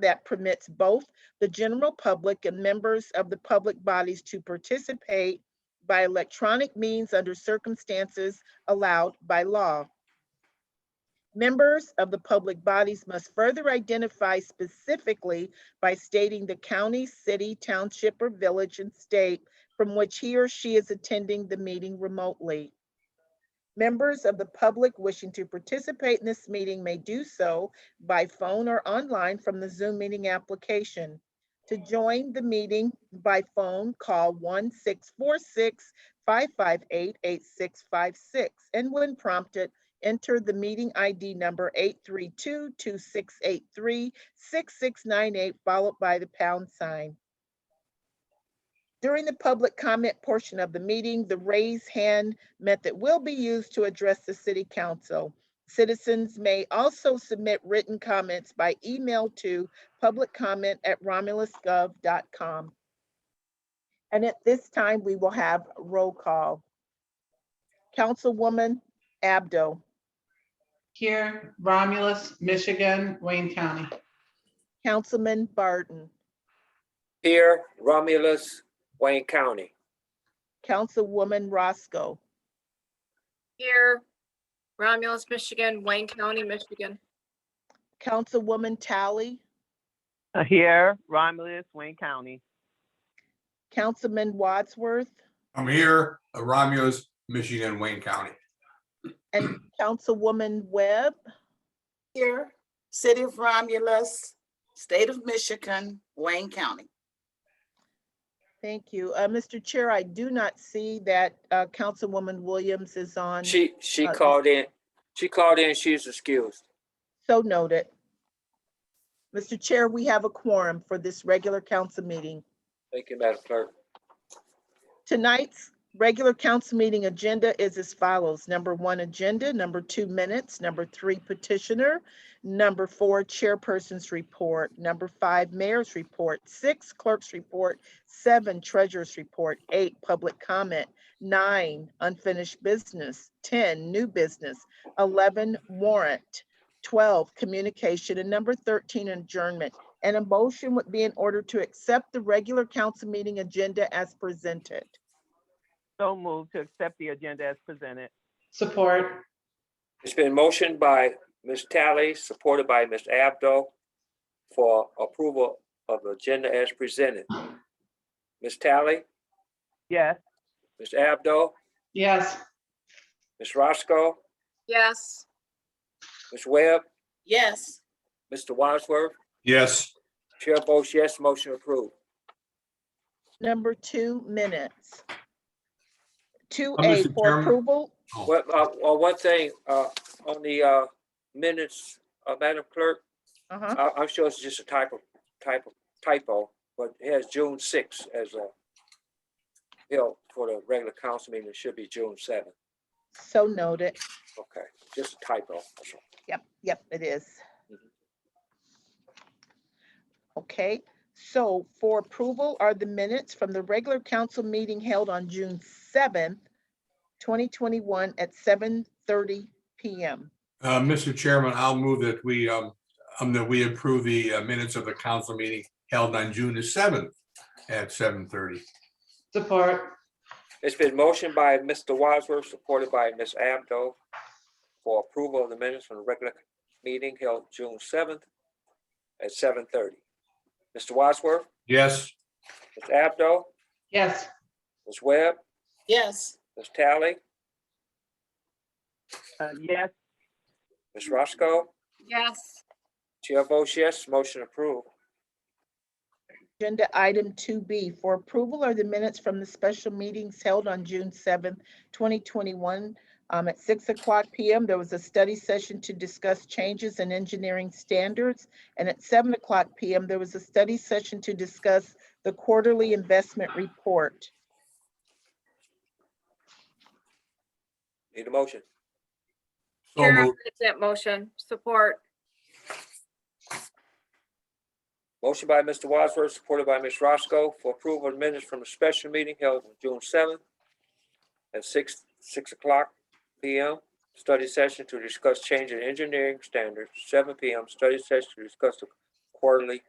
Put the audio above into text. that permits both the general public and members of the public bodies to participate by electronic means under circumstances allowed by law. Members of the public bodies must further identify specifically by stating the county, city, township, or village and state from which he or she is attending the meeting remotely. Members of the public wishing to participate in this meeting may do so by phone or online from the Zoom meeting application. To join the meeting by phone, call 1-646-558-8656, and when prompted, enter the meeting ID number 832-2683-6698, followed by the pound sign. During the public comment portion of the meeting, the raise hand method will be used to address the city council. Citizens may also submit written comments by email to publiccomment@romulusgov.com. And at this time, we will have roll call. Councilwoman Abdo, Here, Romulus, Michigan, Wayne County. Councilman Barton, Here, Romulus, Wayne County. Councilwoman Roscoe, Here, Romulus, Michigan, Wayne County, Michigan. Councilwoman Tally, Uh, Here, Romulus, Wayne County. Councilman Wadsworth, I'm here, uh, Ramos, Michigan, Wayne County. and Councilwoman Webb. Here, City of Romulus, State of Michigan, Wayne County. Thank you. Uh, Mr. Chair, I do not see that, uh, Councilwoman Williams is on, She, she Okay. called in, she called in, she's excused. so noted. Mr. Chair, we have a quorum for this regular council meeting. Thank you, Madam Clerk. Tonight's regular council meeting agenda is as follows. Number one, agenda. Number two, minutes. Number three, petitioner. Number four, chairperson's report. Number five, mayor's report. Six, clerk's report. Seven, treasurer's report. Eight, public comment. Nine, unfinished business. 10, new business. 11, warrant. 12, communication. And number 13, adjournment. And a motion would be in order to accept the regular council meeting agenda as presented. So moved to accept the agenda as presented. Support, It's been motioned by Ms. Tally, supported by Ms. Abdo for approval of the agenda as presented. Ms. Tally, Yes, Ms. Abdo, yes. Ms. Roscoe, Yes, Ms. Webb, Yes, Mr. Wadsworth, Yes, Chair votes yes, motion approved. Number two, minutes. Two Uh, A Mr. for Chairman? approval. Well, uh, well, one thing, uh, on the, uh, minutes, uh, Madam Clerk, Uh-huh. I, I'm sure it's just a typo, typo, typo, but it has June sixth as a bill for the regular council meeting. It should be June seventh. So noted. Okay, just a typo. that's all. Yep, yep, it is. Mhm. Okay, so for approval are the minutes from the regular council meeting held on June seventh, twenty twenty-one at seven thirty PM. uh, Mr. Chairman, I'll move that we, um, um, that we approve the uh, minutes of the council meeting held on June the seventh at seven thirty. Support, It's been motioned by Mr. Wadsworth, supported by Ms. Abdo for approval of the minutes from the regular meeting held June seventh at seven thirty. Mr. Wadsworth, Yes, Ms. Abdo, yes. Ms. Webb, yes, Ms. Tally, uh, yes, Ms. Roscoe, yes, Chair votes yes, motion approved. Agenda item two B for approval are the minutes from the special meetings held on June seventh, twenty twenty-one. Um, at six o'clock PM, there was a study session to discuss changes in engineering standards. And at seven o'clock PM, there was a study session to discuss the quarterly investment report. Need a motion? so Chair, I'll moved. make that motion, support, Motion by Mr. Wadsworth, supported by Ms. Roscoe for approval of minutes from a special meeting held on June seventh at six, six o'clock P M. Study session to discuss change in engineering standards, seven P M. Study session to discuss the quarterly